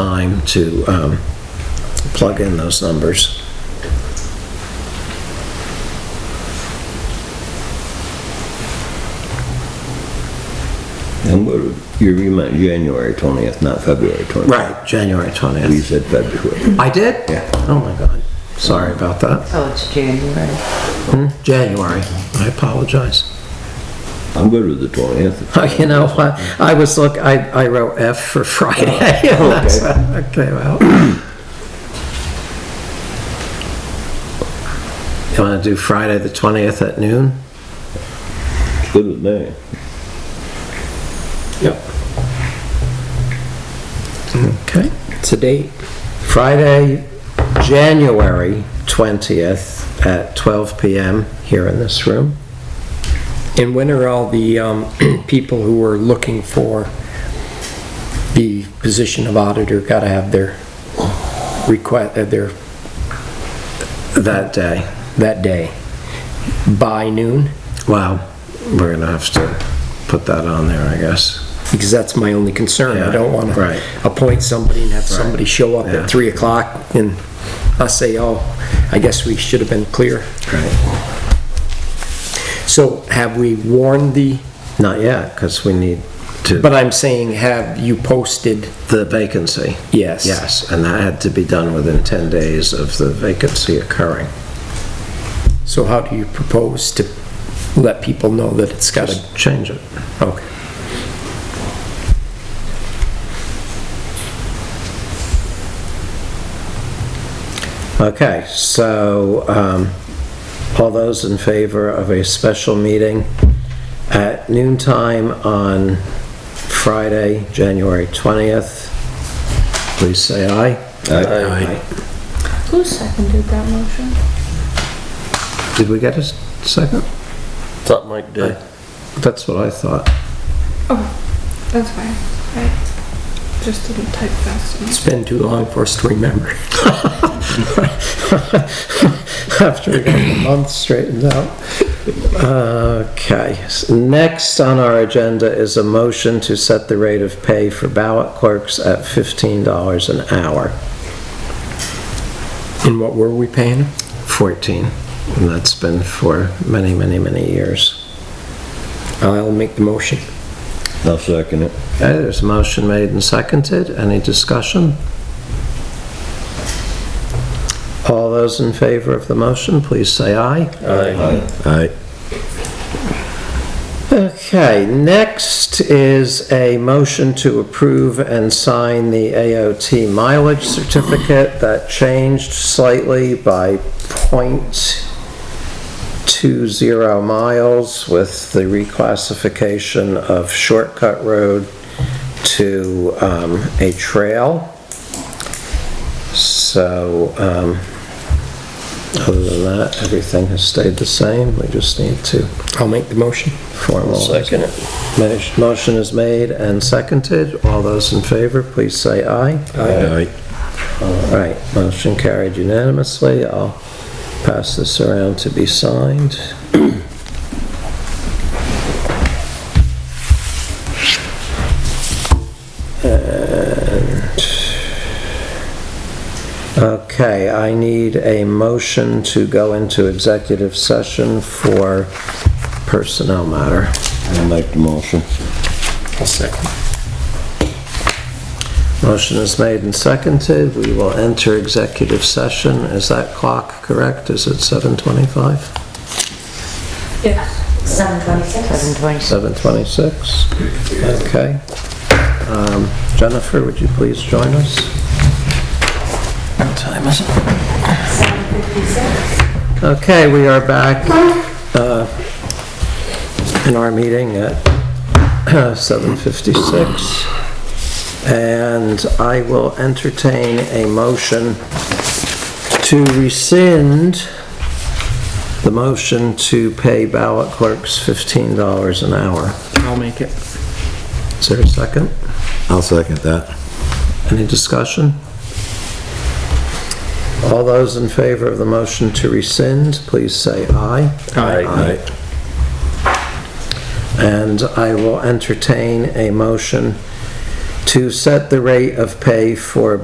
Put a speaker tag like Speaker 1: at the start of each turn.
Speaker 1: time to um, plug in those numbers.
Speaker 2: And what, you meant January 20th, not February 20th.
Speaker 1: Right, January
Speaker 2: We
Speaker 1: 20th.
Speaker 2: said February.
Speaker 1: I did?
Speaker 2: Yeah.
Speaker 1: Oh my God. Sorry about that.
Speaker 3: Oh, it's January.
Speaker 1: January. I apologize.
Speaker 2: I'm good with the 20th.
Speaker 1: You know, I, I was look, I, I wrote F for Friday. and that's
Speaker 2: okay.
Speaker 1: how it came out. You want to do Friday the 20th at noon?
Speaker 2: It's good with me.
Speaker 1: Yep. Okay.
Speaker 4: It's a date.
Speaker 1: Friday, January 20th at 12 PM here in this room.
Speaker 4: And when are all the um, people who are looking for the position of auditor got to have their request, uh, their,
Speaker 1: that day.
Speaker 4: that day? By noon?
Speaker 1: Well, we're gonna have to put that on there, I guess.
Speaker 4: Because that's my only concern. I don't want
Speaker 1: Yeah, right.
Speaker 4: to appoint somebody and have somebody show up
Speaker 1: Yeah.
Speaker 4: at 3 o'clock and us say, oh, I guess we should have been clear.
Speaker 1: Right.
Speaker 4: So have we warned the,
Speaker 1: Not yet, because we need
Speaker 4: but
Speaker 1: to,
Speaker 4: I'm saying, have you posted?
Speaker 1: the vacancy.
Speaker 4: Yes.
Speaker 1: Yes, and that had to be done within 10 days of the vacancy occurring.
Speaker 4: So how do you propose to let people know that it's got to,
Speaker 1: Just change it.
Speaker 4: okay.
Speaker 1: Okay, so, um, all those in favor of a special meeting at noon time on Friday, January 20th, please say aye.
Speaker 2: Aye.
Speaker 3: Who seconded that motion?
Speaker 1: Did we get a s- second?
Speaker 5: Thought Mike did.
Speaker 1: That's what I thought.
Speaker 6: Oh, that's fine. I just didn't type fast enough.
Speaker 4: It's been too long for us to remember.
Speaker 1: After we got the month straightened out. Okay, s- next on our agenda is a motion to set the rate of pay for ballot clerks at $15 an hour,
Speaker 4: And what were we paying?
Speaker 1: 14. And that's been for many, many, many years.
Speaker 4: I'll make the motion.
Speaker 2: I'll second it.
Speaker 1: Okay, there's a motion made and seconded. Any discussion? All those in favor of the motion, please say aye.
Speaker 2: Aye.
Speaker 1: Okay, next is a motion to approve and sign the AOT mileage certificate that changed slightly by point two zero miles with the reclassification of shortcut road to um, a trail. So, um, other than that, everything has stayed the same. We just need to
Speaker 4: I'll make the motion.
Speaker 1: formal.
Speaker 5: Second it.
Speaker 1: Mo- Motion is made and seconded. All those in favor, please say aye.
Speaker 2: Aye.
Speaker 1: All right, motion carried unanimously. I'll pass this around to be signed. And, okay, I need a motion to go into executive session for personnel matter.
Speaker 2: I'll make the motion.
Speaker 4: I'll second.
Speaker 1: Motion is made and seconded. We will enter executive session. Is that clock correct? Is it 7:25?
Speaker 3: Seven twenty-six. Seven twenty-six.
Speaker 1: 7:26? Okay. Um, Jennifer, would you please join us? What time is it? Okay, we are back uh, in our meeting at 7:56. And I will entertain a motion to rescind the motion to pay ballot clerks $15 an hour.
Speaker 4: I'll make it.
Speaker 1: Is there a second?
Speaker 2: I'll second that.
Speaker 1: Any discussion? All those in favor of the motion to rescind, please say aye.
Speaker 2: Aye.
Speaker 1: And I will entertain a motion to set the rate of pay for